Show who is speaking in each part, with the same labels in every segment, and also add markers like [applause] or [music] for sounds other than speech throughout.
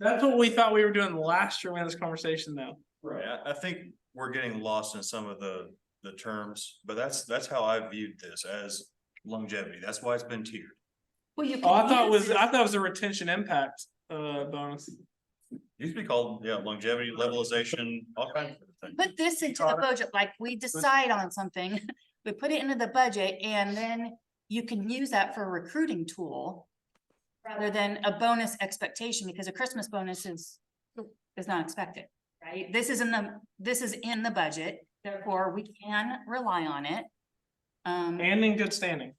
Speaker 1: That's what we thought we were doing last year we had this conversation though.
Speaker 2: Right, I, I think we're getting lost in some of the, the terms, but that's, that's how I viewed this as longevity. That's why it's been tiered.
Speaker 3: Well, you.
Speaker 1: Oh, I
Speaker 3: can
Speaker 1: thought it
Speaker 3: use
Speaker 1: was,
Speaker 3: this-
Speaker 1: I thought it was a retention impact, uh, bonus.
Speaker 2: It Used to be called, yeah, longevity, levelization, all kinds of things.
Speaker 3: Put this into the budget, like we decide on something, [laughs] we put it into the budget and then you can use that for a recruiting tool. Rather than a bonus expectation, because a Christmas bonus is, is not expected, right? This is in the, this is in the budget, therefore we can rely on it. Um,
Speaker 1: And in good standing.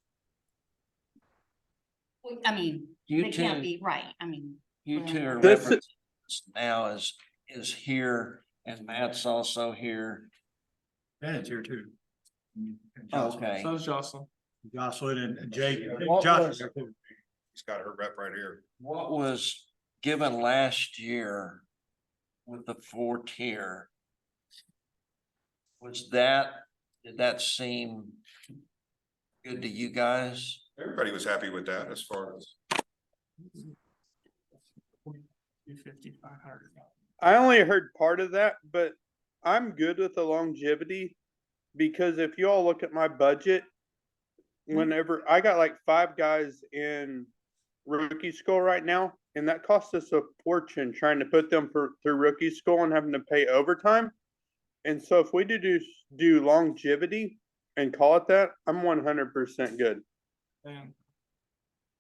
Speaker 3: I mean,
Speaker 4: You
Speaker 3: it can't
Speaker 4: two,
Speaker 3: be right, I mean.
Speaker 4: you two are
Speaker 5: This-
Speaker 4: referencing this now is, is here and Matt's also here.
Speaker 6: Yeah, it's here too.
Speaker 4: Okay,
Speaker 1: So is Jocelyn.
Speaker 6: Jocelyn and Jake.
Speaker 4: What
Speaker 6: Josh-
Speaker 4: was-
Speaker 2: He's got her rep right here.
Speaker 4: what was given last year with the four tier? Was that, did that seem good to you guys?
Speaker 7: Everybody was happy with that as far as.
Speaker 1: Two fifty, five hundred.
Speaker 5: I only heard part of that, but I'm good with the longevity because if you all look at my budget, whenever I got like five guys in rookie school right now, and that cost us a fortune trying to put them for through rookie school and having to pay overtime. And so if we do do, do longevity and call it that, I'm 100% good.
Speaker 1: And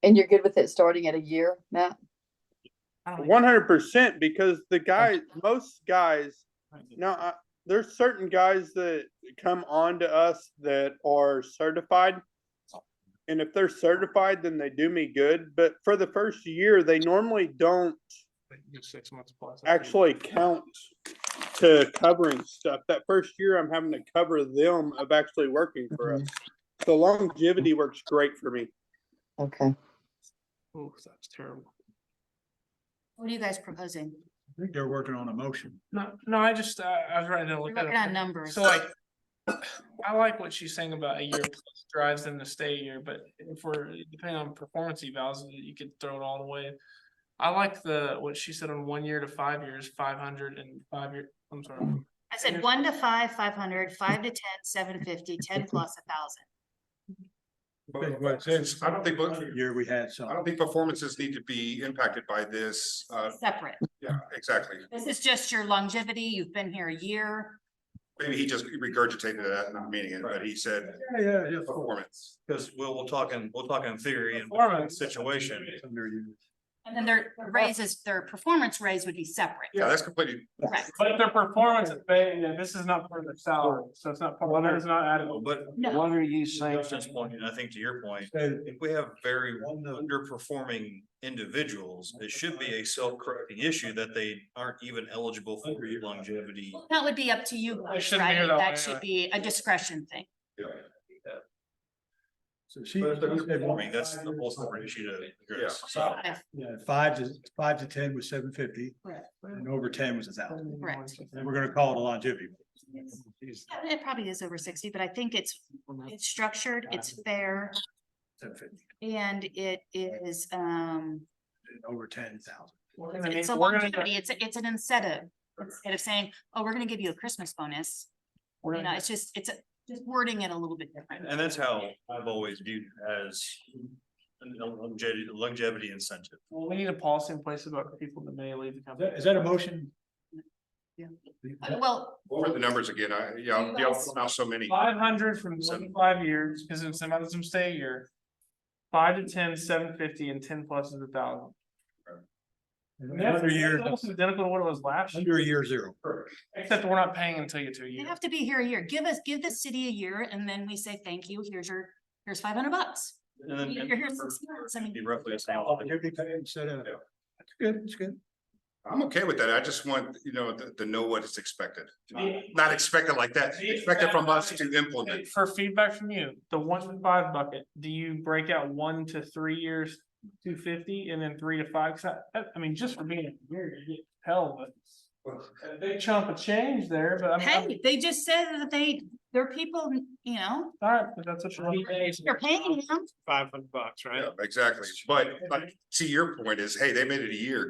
Speaker 8: And you're good with it starting at a year, Matt?
Speaker 1: I don't
Speaker 5: One hundred percent, because the guy, most guys,
Speaker 1: know.
Speaker 5: now, I- there's certain guys that come on to us that are certified. And if they're certified, then they do me good, but for the first year, they normally don't
Speaker 1: Give Six months plus.
Speaker 5: actually count to covering stuff. That first year, I'm having to cover them of actually working for us. So longevity works great for me.
Speaker 8: Okay.
Speaker 1: Oh, that's terrible.
Speaker 3: What are you guys proposing?
Speaker 6: I think they're working on a motion.
Speaker 1: No, no, I just, uh, I was writing down.
Speaker 3: We're
Speaker 1: look
Speaker 3: working
Speaker 1: at
Speaker 3: on
Speaker 1: it.
Speaker 3: numbers.
Speaker 1: So like, I like what she's saying about a year plus drives them to stay a year, but if we're depending on performance evals, you could throw it all the way. I like the, what she said on one year to five years, five hundred and five year, I'm sorry.
Speaker 3: I said one to five, five hundred, five to ten, seven fifty,
Speaker 1: [laughs]
Speaker 3: ten plus a thousand.
Speaker 7: I don't think,
Speaker 6: Year we had some.
Speaker 7: I don't think performances need to be impacted by this. Uh,
Speaker 3: Separate.
Speaker 7: yeah, exactly.
Speaker 3: This is just your longevity. You've been here a year.
Speaker 7: Maybe he just regurgitated that, not meaning it, but he said
Speaker 6: Yeah, yeah, yeah.
Speaker 7: performance.
Speaker 2: Cause we'll, we'll talk in, we'll talk in theory and
Speaker 1: Performance.
Speaker 2: situation.
Speaker 6: Under you.
Speaker 3: And then their raises, their performance raise would be separate.
Speaker 7: Yeah, that's completely,
Speaker 3: Right.
Speaker 1: But their performance is paying, and this is not for their salary, so it's not, part- it's not added.
Speaker 2: But
Speaker 3: No,
Speaker 4: What are you saying?
Speaker 2: Justin's point, and I think to your point,
Speaker 6: So
Speaker 2: if we have very
Speaker 6: on the-
Speaker 2: underperforming individuals, it should be a self-correcting issue that they aren't even eligible for longevity.
Speaker 3: that would be up to you
Speaker 1: It
Speaker 3: guys,
Speaker 1: shouldn't be
Speaker 3: right?
Speaker 1: that way,
Speaker 3: That should
Speaker 1: right.
Speaker 3: be a discretion thing.
Speaker 7: yeah,
Speaker 6: so she.
Speaker 2: But if they're
Speaker 6: she said one
Speaker 2: underperforming, that's the whole
Speaker 6: five
Speaker 2: separate
Speaker 6: years.
Speaker 2: issue to address. So
Speaker 6: Yeah, five to, five to ten was seven fifty.
Speaker 3: Right.
Speaker 6: And over ten was a thousand.
Speaker 3: Correct.
Speaker 6: And we're gonna call it a longevity.
Speaker 3: Yeah, It probably is over sixty, but I think it's, it's structured, it's fair,
Speaker 6: Seven fifty,
Speaker 3: and it is, um,
Speaker 6: over ten thousand.
Speaker 1: We're gonna need-
Speaker 3: it's a
Speaker 1: we're gonna-
Speaker 3: longevity. It's, a- it's an incentive. Instead of saying, oh, we're gonna give you a Christmas bonus.
Speaker 1: we're
Speaker 3: You know,
Speaker 1: gonna-
Speaker 3: it's just, it's a- just wording it a little bit different.
Speaker 2: And that's how I've always viewed as an longevity, longevity incentive.
Speaker 1: Well, we need a policy in place about people that may leave the
Speaker 6: Is
Speaker 1: company.
Speaker 6: that- Is that a motion?
Speaker 3: Yeah. Uh, Well,
Speaker 7: what were the numbers again? I, yeah, yeah, not so many.
Speaker 1: Five hundred from one to five years, because in some of them stay a year. Five to ten, seven fifty, and ten plus is a thousand.
Speaker 6: Under
Speaker 1: That's-
Speaker 6: year,
Speaker 1: that's almost Identical to what it was last year,
Speaker 6: under year zero.
Speaker 1: except we're not paying until you two
Speaker 3: They
Speaker 1: years.
Speaker 3: have to be here a year. Give us, give the city a year and then we say, thank you, here's your, here's five hundred bucks.
Speaker 2: And
Speaker 3: [laughs]
Speaker 2: then.
Speaker 3: You're here six months, I mean-
Speaker 2: Be roughly. the same.
Speaker 6: Longevity pay instead of.
Speaker 7: Yeah.
Speaker 6: That's good, that's good.
Speaker 7: I'm okay with that. I just want, you know, to, to know what is expected. Not expected like that, expected from us to implement.
Speaker 1: For feedback from you, the one to five bucket, do you break out one to three years, two fifty, and then three to five? 'Cause I- I, I mean, just for being a year, you get hell, but. A big chunk of change there, but I'm- I'm,
Speaker 3: Hey, they just said that they, their people, you know,
Speaker 1: sorry, but that's what you're.
Speaker 3: you're paying them.
Speaker 1: Five hundred bucks,
Speaker 7: Yeah, exactly. But like, to your point is, hey, they made it a year.